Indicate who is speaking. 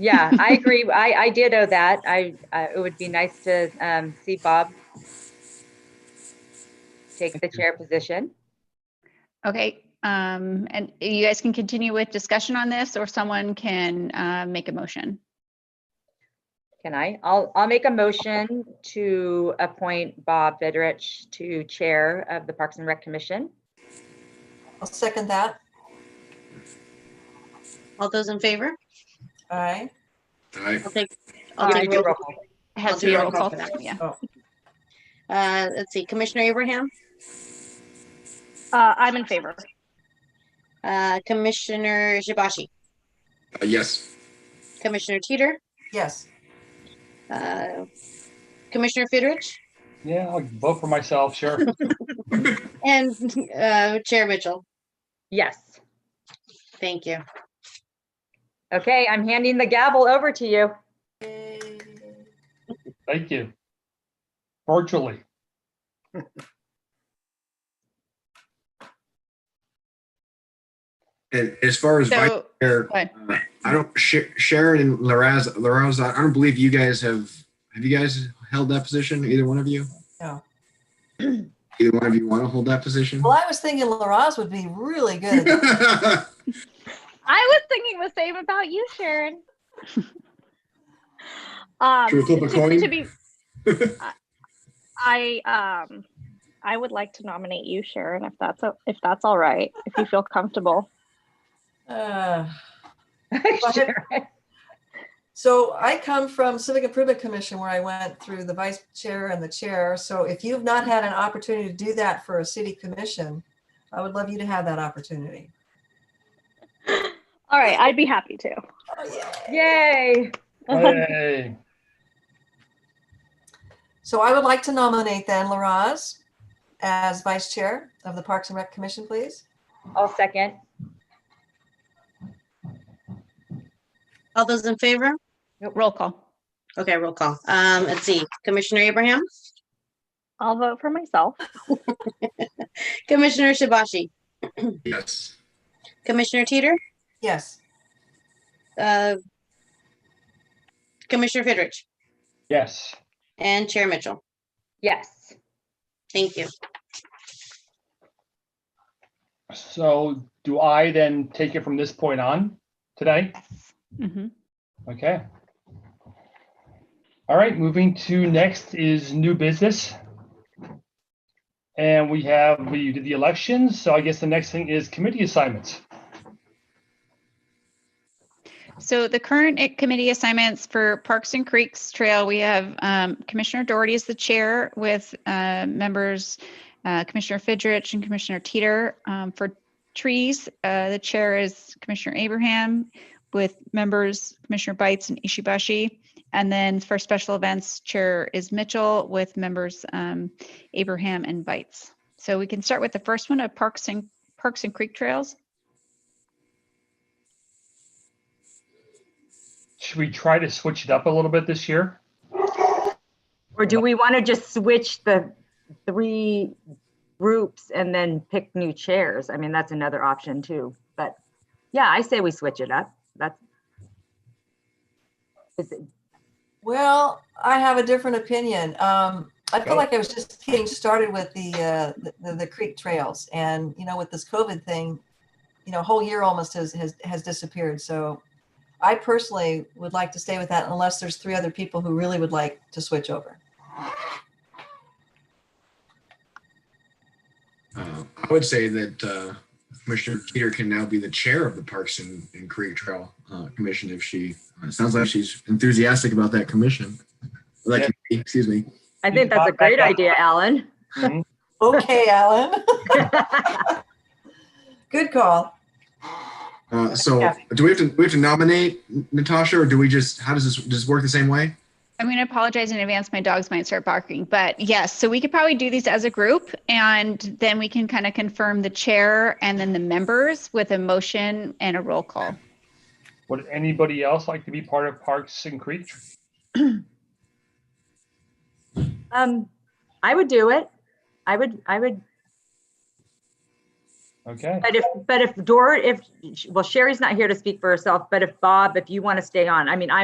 Speaker 1: Yeah, I agree. I, I did owe that. I, I, it would be nice to, um, see Bob take the chair position.
Speaker 2: Okay, um, and you guys can continue with discussion on this or someone can, uh, make a motion.
Speaker 1: Can I? I'll, I'll make a motion to appoint Bob Vidrich to Chair of the Parks and Rec Commission.
Speaker 3: I'll second that.
Speaker 4: All those in favor?
Speaker 3: All right.
Speaker 5: Aye.
Speaker 4: I'll take, I'll
Speaker 1: Give
Speaker 4: take,
Speaker 1: me a
Speaker 4: roll-
Speaker 1: roll call.
Speaker 2: Has to be a roll call for that, yeah.
Speaker 4: uh, let's see, Commissioner Abraham,
Speaker 6: Uh, I'm in favor.
Speaker 4: uh, Commissioner Shibashi,
Speaker 5: Uh, Yes,
Speaker 4: Commissioner Teeter,
Speaker 3: Yes,
Speaker 4: uh, Commissioner Fidrich,
Speaker 7: Yeah, I'll vote for myself, sure.
Speaker 4: and, uh, Chair Mitchell.
Speaker 1: Yes.
Speaker 4: Thank you.
Speaker 1: Okay, I'm handing the gavel over to you.
Speaker 7: Thank you. Virtually.
Speaker 5: and as far as vice
Speaker 2: So,
Speaker 5: chair,
Speaker 2: go ahead.
Speaker 5: uh, I don't, Sh- Sharon and Laraz, Laraz, I don't believe you guys have, have you guys held that position, either one of you?
Speaker 3: No.
Speaker 5: Either one of you want to hold that position?
Speaker 3: well, I was thinking LaRaz would be really good.
Speaker 5: All
Speaker 6: I was thinking the same about you, Sharon. um,
Speaker 5: Should we flip a
Speaker 6: to-
Speaker 5: coin?
Speaker 6: to be, I I, um, I would like to nominate you, Sharon, if that's o- if that's all right, if you feel comfortable.
Speaker 3: Uh,
Speaker 1: Sure.
Speaker 3: So I come from Civic Improvement Commission where I went through the vice chair and the chair. So if you've not had an opportunity to do that for a city commission, I would love you to have that opportunity.
Speaker 6: All right, I'd be happy to.
Speaker 1: Yay.
Speaker 7: Hey,
Speaker 3: So I would like to nominate then LaRaz as vice chair of the Parks and Rec Commission, please.
Speaker 1: I'll second.
Speaker 4: All those in favor?
Speaker 2: roll call.
Speaker 4: Okay, roll call. Um, let's see, Commissioner Abraham,
Speaker 6: I'll vote for myself.
Speaker 4: Commissioner Shibashi,
Speaker 5: Yes,
Speaker 4: Commissioner Teeter,
Speaker 3: Yes.
Speaker 4: uh, Commissioner Fidrich,
Speaker 7: yes.
Speaker 4: and Chair Mitchell.
Speaker 1: Yes.
Speaker 4: Thank you.
Speaker 7: So do I then take it from this point on today?
Speaker 2: Mhm.
Speaker 7: Okay. All right, moving to next is new business. And we have, we did the elections, so I guess the next thing is committee assignments.
Speaker 2: So the current i- committee assignments for Parks and Creeks Trail, we have um, Commissioner Doherty is the chair with uh, members, uh, Commissioner Fidrich and Commissioner Teeter. Um, For trees, uh, the chair is Commissioner Abraham with members Commissioner Bites and Ishibashi. And then for special events, Chair is Mitchell with members um, Abraham and Bites. So we can start with the first one of Parks and, Parks and Creek Trails.
Speaker 7: Should we try to switch it up a little bit this year?
Speaker 8: Or do we want to just switch the three groups and then pick new chairs? I mean, that's another option too, but yeah, I say we switch it up. That's. Is it-
Speaker 3: Well, I have a different opinion. Um, I
Speaker 7: Go.
Speaker 3: feel like I was just getting started with the, uh, the- the, the creek trails and, you know, with this COVID thing, you know, a whole year almost has, has, has disappeared. So I personally would like to stay with that unless there's three other people who really would like to switch over.
Speaker 5: Uh, I would say that uh, Commissioner Peter can now be the chair of the Parks and and Creek Trail uh, Commission if she, it sounds like she's enthusiastic about that commission. That
Speaker 7: Yeah.
Speaker 5: committee, Excuse me.
Speaker 8: I think that's a great idea, Alan.
Speaker 3: Okay, Alan. Good call.
Speaker 5: Uh, so
Speaker 3: Yeah.
Speaker 5: do we have to, we have to nominate Natasha or do we just, how does this, does this work the same way?
Speaker 2: I'm going to apologize in advance. My dogs might start barking, but yes, so we could probably do these as a group and then we can kind of confirm the chair and then the members with a motion and a roll call.
Speaker 7: Would anybody else like to be part of Parks and Creek?
Speaker 8: Um, I would do it. I would, I would
Speaker 7: Okay,
Speaker 1: But if, but if Dor, if, well, Sherry's not here to speak for herself, but if Bob, if you want to stay on, I mean, I.